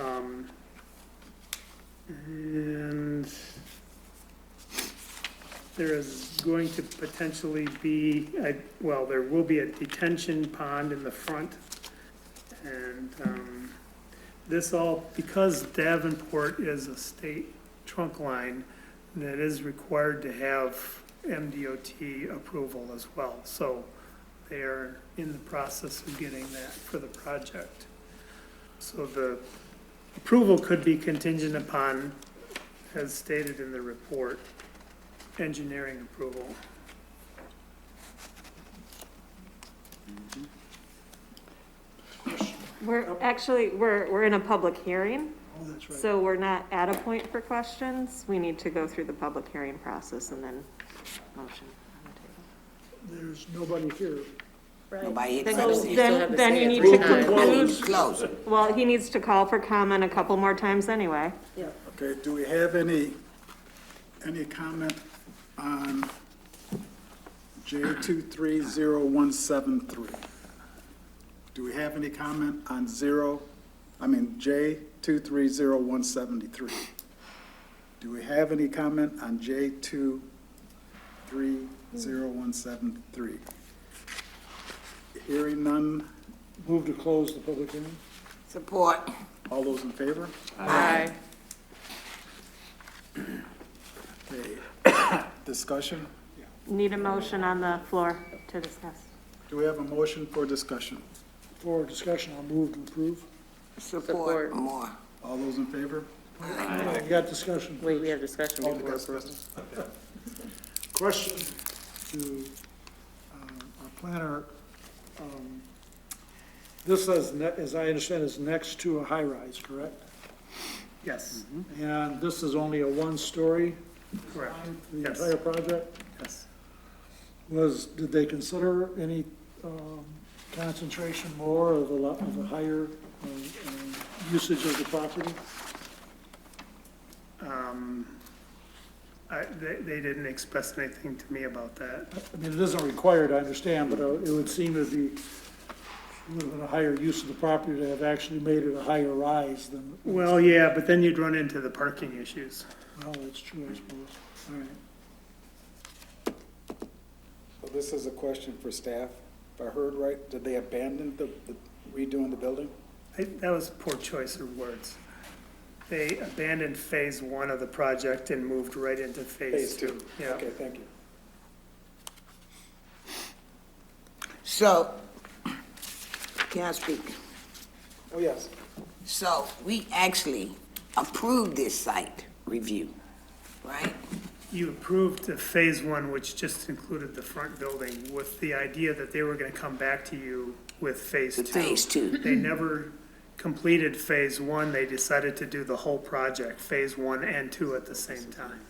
Um, And there is going to potentially be, I- well, there will be a detention pond in the front. And um, this all, because Davenport is a state trunk line that is required to have MDOT approval as well. So they are in the process of getting that for the project. So the approval could be contingent upon, as stated in the report, engineering approval. We're, actually, we're, we're in a public hearing, Oh, that's right. so we're not at a point for questions. We need to go through the public hearing process and then motion. There's nobody here. Nobody Then- accepts it. Then, then you need to Move the conclude, meeting, close. well, he needs to call for comment a couple more times anyway. Okay, do we have any, any comment on J two three zero one seven three? Do we have any comment on zero, I mean, J two three zero one seventy-three? Do we have any comment on J two three zero one seven three? Hearing none, Move to close the public hearing? Support. all those in favor? Aye. Okay, discussion? Need a motion on the floor to discuss. Do we have a motion for discussion? For discussion, I'll move to approve. Support more. All those in favor? We got discussion. Wait, we have discussion All before discuss- approval. Question to um, our planner. uh, Um, This is, ne- as I understand, is next to a high-rise, correct? Yes, Mm-hmm. And this is only a one-story, correct, the Yes. entire project? yes. Was, did they consider any um, concentration more of the, lo- of the higher um, um, usage of the property? Um, I, they, they didn't express anything to me about that. I mean, it isn't required, I understand, but uh, it would seem to be a little bit of higher use of the property to have actually made it a higher rise than, well, Well, yeah, but then you'd run into the parking issues. that's true, I suppose. All right. So This is a question for staff. If I heard right, did they abandon the the redoing the building? I, that was poor choice of words. They abandoned phase one of the project and moved right into phase two. Yeah. Okay, thank you. So, can I speak? Oh, yes. So we actually approved this site review, right? You approved the phase one, which just included the front building, with the idea that they were gonna come back to you with phase two. The phase two. They never completed phase one, they decided to do the whole project, phase one and two at the same time.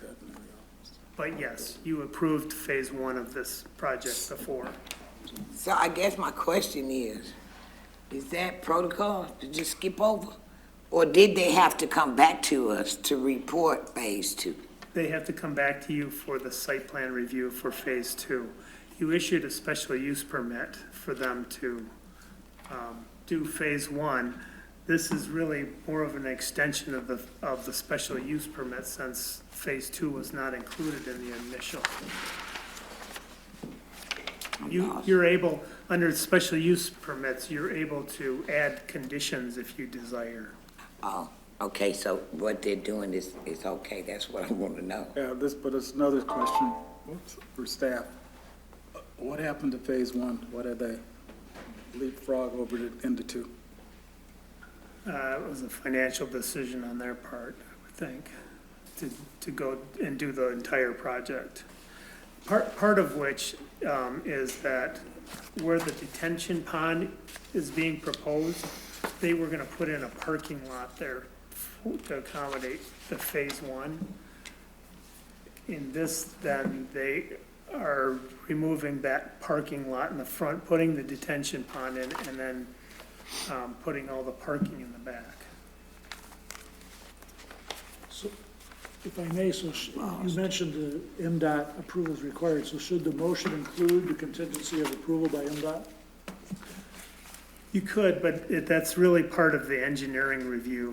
But yes, you approved phase one of this project before. So I guess my question is, is that protocol to just skip over? Or did they have to come back to us to report phase two? They have to come back to you for the site plan review for phase two. You issued a special use permit for them to um, do phase one. This is really more of an extension of the, of the special use permit since phase two was not included in the initial. You, you're able, under special use permits, you're able to add conditions if you desire. Oh, okay, so what they're doing is, is okay, that's what I want to know. Yeah, this, but it's another question oops, for staff. What happened to phase one? What did they leapfrog over to- into two? Uh, It was a financial decision on their part, I would think, to, to go and do the entire project. Part, part of which um, is that where the detention pond is being proposed, they were gonna put in a parking lot there to accommodate the phase one. In this, then, they are removing that parking lot in the front, putting the detention pond in, and then um, putting all the parking in the back. So, if I may, so sh- you mentioned the MDOT approval is required, so should the motion include the contingency of approval by MDOT? You could, but it- that's really part of the engineering review